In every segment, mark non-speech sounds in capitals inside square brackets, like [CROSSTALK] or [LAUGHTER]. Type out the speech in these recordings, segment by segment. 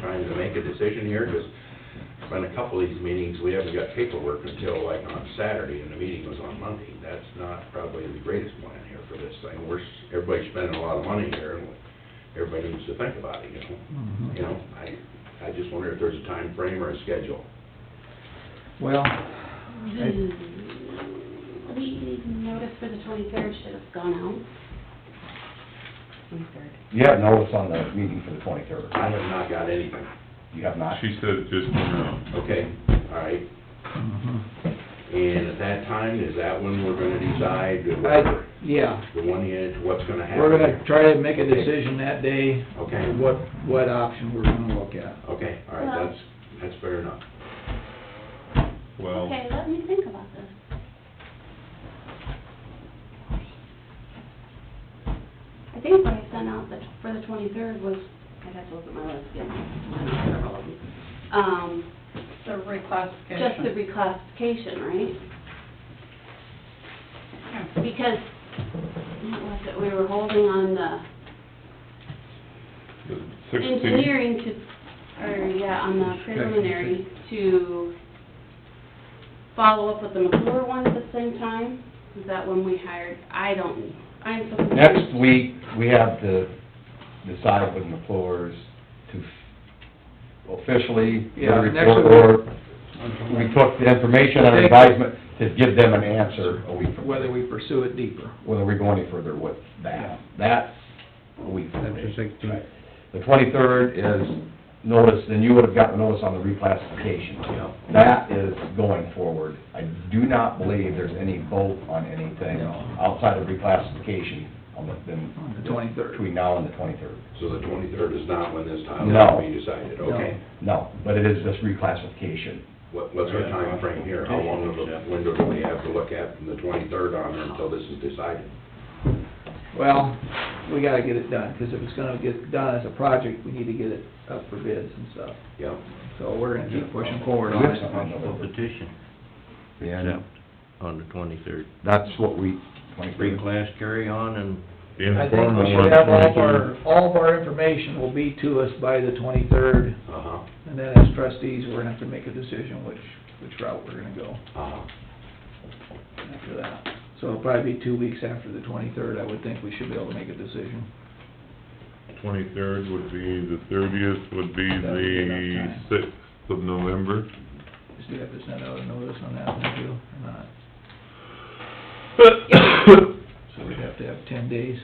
time to make a decision here, because it's been a couple of these meetings, we haven't got paperwork until like on Saturday, and the meeting was on Monday. That's not probably the greatest plan here for this thing. We're, s- everybody's spending a lot of money here, and everybody needs to think about it, you know? Mm-hmm. You know, I, I just wonder if there's a time frame or a schedule. Well, The, the notice for the twenty-third should have gone out. Twenty-third. Yeah, no, it's on the meeting for the twenty-third. I have not got anything. You have not? She said it just went out. Okay, all right. mhm. And at that time, is that when we're gonna decide I, whether, yeah, the one is, what's gonna happen? we're gonna try to make a decision that day, Okay. what, what option we're gonna look at. Okay, all right, Well- that's, that's fair enough. Well, Okay, let me think about this. I think what I sent out the- for the twenty-third was, I had to look at my list, yeah, I have several of them. Um, The reclassification. just the reclassification, right? Because, what was it, we were holding on the the sixteen, engineering to, or, yeah, on the preliminary to follow up with the McClure one at the same time? Is that when we hired, I don't, I'm so confused. Next week, we have to decide with McClure's to officially, Yeah, their next report, or we week. took the information and advisement to give them an answer a week from Whether we pursue it deeper. Whether we go any further with that. That's a week from That's the today. 16th. Right. The twenty-third is notice, and you would have gotten notice on the reclassification. Yeah. That is going forward. I do not believe there's any vote on anything No. outside of reclassification on the, then. On the 23rd. Between now and the twenty-third. So the twenty-third is not when this time No. will be decided, okay? No, but it is just reclassification. What, what's our time frame here? How long of a window do we have to look at from the twenty-third on until this is decided? Well, we gotta get it done, because if it's gonna get done as a project, we need to get it up for bids and stuff. Yeah, So we're gonna keep pushing forward on Yes, on it. November. petition And on the twenty-third. that's what we, twenty-three. Reclass carry on and I think we informal on should the have all of twenty-third. our, all of our information will be to us by the twenty-third, uh-huh, and then as trustees, we're gonna have to make a decision which, which route we're gonna go uh-huh. after that. So it'll probably be two weeks after the twenty-third, I would think we should be able to make a decision. Twenty-third would be, the thirtieth would be That would be the enough sixth of November. Just do have to send out a notice on that, one too, or not? [COUGHS] So we'd have to have ten days.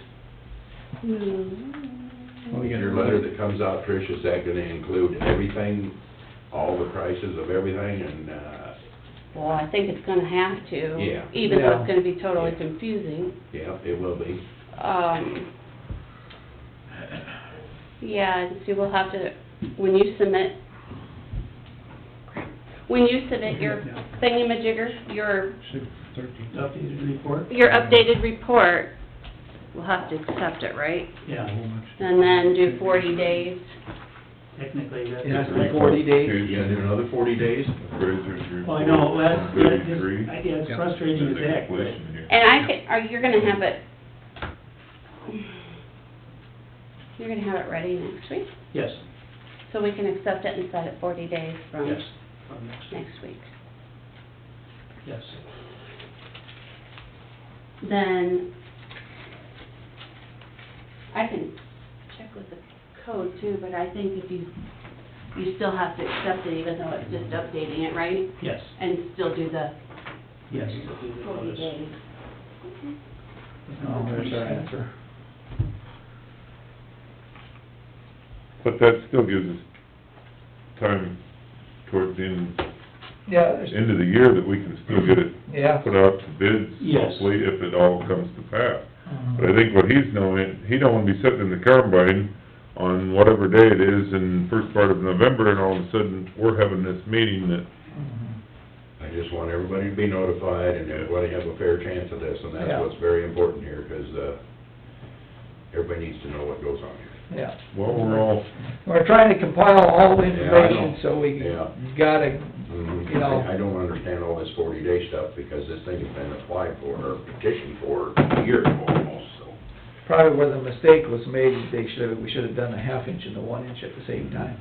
Hmm. Your letter that comes out, Trish, is that gonna include everything, all the prices of everything and, uh, Well, I think it's gonna have to. Yeah. Even though Yeah. it's gonna be totally Yeah. confusing. yeah, it will be. Um, yeah, and see, we'll have to, when you submit, when you submit your thingamajigger, your, Updated report? your updated report, we'll have to accept it, right? Yeah, And then do forty days. technically, that's. It has to be forty days. You gonna do another forty days? Appraiser's report. Well, I know, that's, that's, Thirty-three. I guess frustrating as heck, but Inflation here. And I can, are, you're gonna have it, you're gonna have it ready next week? yes, So we can accept it and set it forty days from yes, from next week, next week. yes. then I can check with the code too, but I think if you, you still have to accept it even though it's just updating it, right? Yes, And still do the yes. forty days. Oh, there's our answer. But that still gives us time towards the end, Yeah, there's, end of the year that we can still get it yeah. put out to bids, Yes. hopefully, if it all comes to pass. But I think what he's knowing, he don't wanna be sitting in the combine on whatever day it is in first part of November, and all of a sudden, we're having this meeting that, Mhm. I just want everybody to be notified and everybody have a fair chance of this, and that's Yeah. what's very important here, 'cause, uh, everybody needs to know what goes on here. Yeah. well, we're all, We're trying to compile all the Yeah, I information, know. so we Yeah. gotta, You know- Mm-hmm. I I don't understand all this forty day stuff, because this thing has been applied for, or petitioned for years almost, so. probably where the mistake was made, is they should, we should have done the half inch and the one inch at the same time.